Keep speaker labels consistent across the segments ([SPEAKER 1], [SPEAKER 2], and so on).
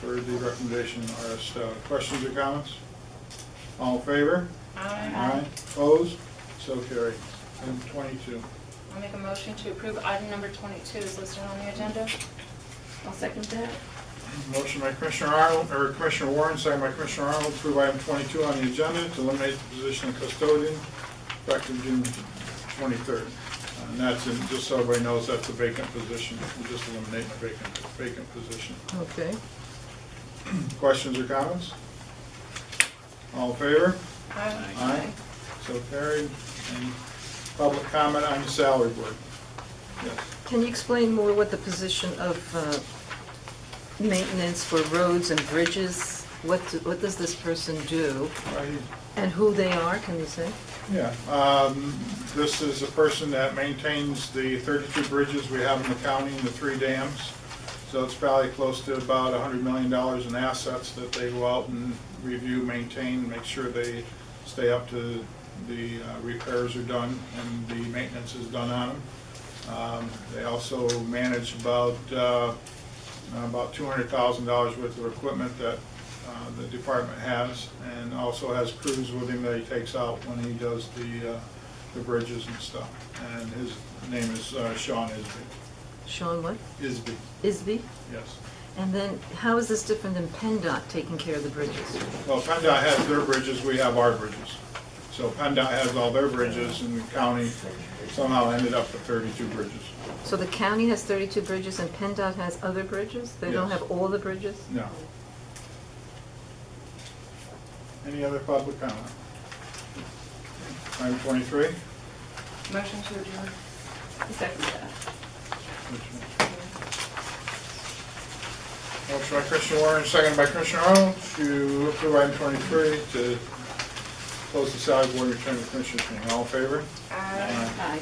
[SPEAKER 1] for the recommendation R.S. Stout. Questions or comments? All in favor? Aye. Opposed? So carried. Item twenty-two.
[SPEAKER 2] I'll make a motion to approve item number 22 is listed on the agenda.
[SPEAKER 3] I'll second that.
[SPEAKER 1] Motion by Commissioner Arnold, or Commissioner Warren, second by Commissioner Arnold, to approve item twenty-two on the agenda to eliminate the position of custodian effective June twenty-third. And that's, in- just so everybody knows, that's a vacant position. We're just eliminating a vacant, vacant position.
[SPEAKER 4] Okay.
[SPEAKER 1] Questions or comments? All in favor? Aye. So carried. Any public comment on the salary board? Yes.
[SPEAKER 4] Can you explain more what the position of uh, maintenance for roads and bridges, what, do- what does this person do?
[SPEAKER 1] Right here.
[SPEAKER 4] And who they are, can you say?
[SPEAKER 1] Yeah, um, this is a person that maintains the 32 bridges we have in the county and the three dams. So it's probably close to about $100 million in assets that they go out and review, maintain, make sure they stay up to the uh, repairs are done and the maintenance is done on them. Um, They also manage about, uh, about $200,000 worth of equipment that uh, the department has, and also has crews with him that he takes out when he does the, uh, the bridges and stuff. And his name is uh, Sean Isby.
[SPEAKER 4] Sean what?
[SPEAKER 1] Isby,
[SPEAKER 4] Isby?
[SPEAKER 1] yes.
[SPEAKER 4] And then, how is this different than PennDOT taking care of the bridges?
[SPEAKER 1] Well, PennDOT has their bridges, we have our bridges. So PennDOT has all their bridges, and the county somehow ended up with 32 bridges.
[SPEAKER 4] So the county has 32 bridges and PennDOT has other bridges? They don't
[SPEAKER 1] Yes.
[SPEAKER 4] have all the bridges?
[SPEAKER 1] No. Any other public comment? Item 23?
[SPEAKER 2] Motion to adjourn.
[SPEAKER 3] I'll second that.
[SPEAKER 1] Motion by Commissioner Warren, second by Commissioner Arnold, to approve item 23, to close the salary board and return to commissioners' meeting. All in favor?
[SPEAKER 2] Aye.
[SPEAKER 3] Aye.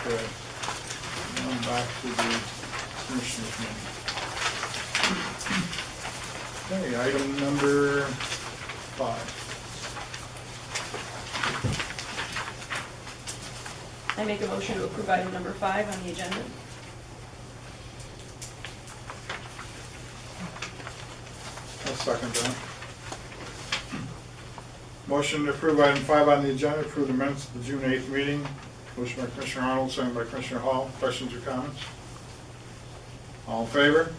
[SPEAKER 1] Okay. Now I'm back to the commissioners' meeting. Okay, item number five.
[SPEAKER 3] I make a motion to approve item number five on the agenda.
[SPEAKER 1] I'll second that. Motion to approve item five on the agenda, approve the minutes of the June 8th meeting. Motion by Commissioner Arnold, second by Commissioner Hall. Questions or comments? All in favor?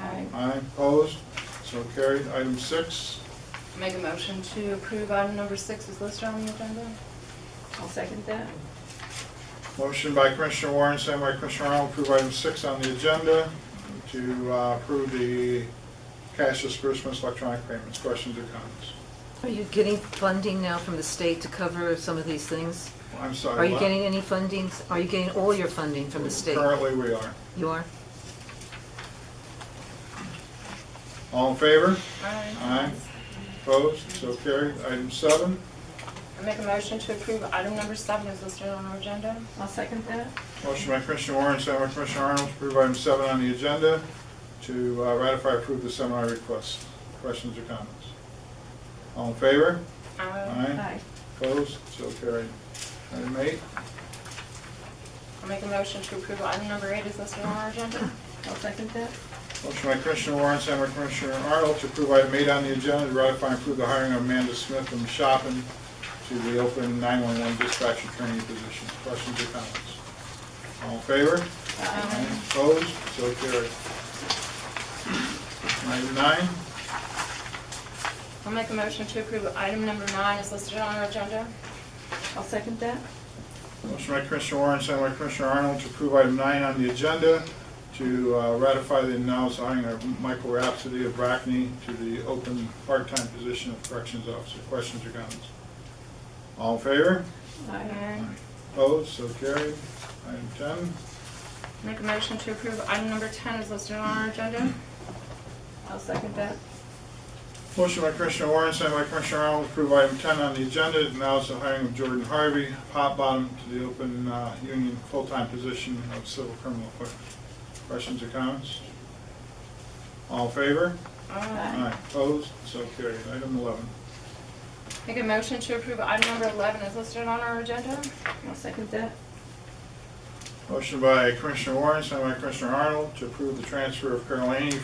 [SPEAKER 3] Aye.
[SPEAKER 1] Aye, opposed? So carried. Item six,
[SPEAKER 2] Make a motion to approve item number 6 is listed on the agenda.
[SPEAKER 3] I'll second that.
[SPEAKER 1] motion by Commissioner Warren, second by Commissioner Arnold, approve item six on the agenda to uh, approve the cash disbursements, electronic payments. Questions or comments?
[SPEAKER 4] Are you getting funding now from the state to cover some of these things?
[SPEAKER 1] I'm sorry.
[SPEAKER 4] Are you
[SPEAKER 1] what?
[SPEAKER 4] getting any fundings? Are you getting all your funding from the state?
[SPEAKER 1] Currently, we are.
[SPEAKER 4] You are?
[SPEAKER 1] All in favor?
[SPEAKER 2] Aye.
[SPEAKER 1] Aye. Opposed? So carried. Item seven,
[SPEAKER 2] I make a motion to approve item number 7 is listed on our agenda.
[SPEAKER 3] I'll second that.
[SPEAKER 1] motion by Commissioner Warren, second by Commissioner Arnold, to approve item seven on the agenda to uh, ratify approve the seminar request. Questions or comments? All in favor? Aye.
[SPEAKER 3] Aye.
[SPEAKER 1] Opposed? So carried. Item eight,
[SPEAKER 2] I make a motion to approve item number 8 is listed on our agenda.
[SPEAKER 3] I'll second that.
[SPEAKER 1] motion by Commissioner Warren, second by Commissioner Arnold, to approve item eight on the agenda to ratify and approve the hiring of Amanda Smith from Shopin to the open 911 dispatcher training position. Questions or comments? All in favor?
[SPEAKER 3] Aye.
[SPEAKER 1] Opposed? So carried. Item nine,
[SPEAKER 2] I'll make a motion to approve item number 9 is listed on our agenda.
[SPEAKER 3] I'll second that.
[SPEAKER 1] motion by Commissioner Warren, second by Commissioner Arnold to approve item nine on the agenda to uh, ratify the announced hiring of Michael Rhapsody of Brackney to the open part-time position of corrections officer. Questions or comments? All in favor?
[SPEAKER 3] Aye.
[SPEAKER 1] Opposed? So carried. Item ten,
[SPEAKER 2] Make a motion to approve item number 10 is listed on our agenda.
[SPEAKER 3] I'll second that.
[SPEAKER 1] Motion by Commissioner Warren, second by Commissioner Arnold, to approve item 10 on the agenda, announce the hiring of Jordan Harvey, hot bottom to the open uh, union full-time position of civil criminal clerk. Questions or comments? All in favor?
[SPEAKER 2] Aye.
[SPEAKER 1] Opposed? So carried. Item 11.
[SPEAKER 2] Make a motion to approve item number 11 is listed on our agenda.
[SPEAKER 3] I'll second that.
[SPEAKER 1] Motion by Commissioner Warren, second by Commissioner Arnold, to approve the transfer of Carol Laney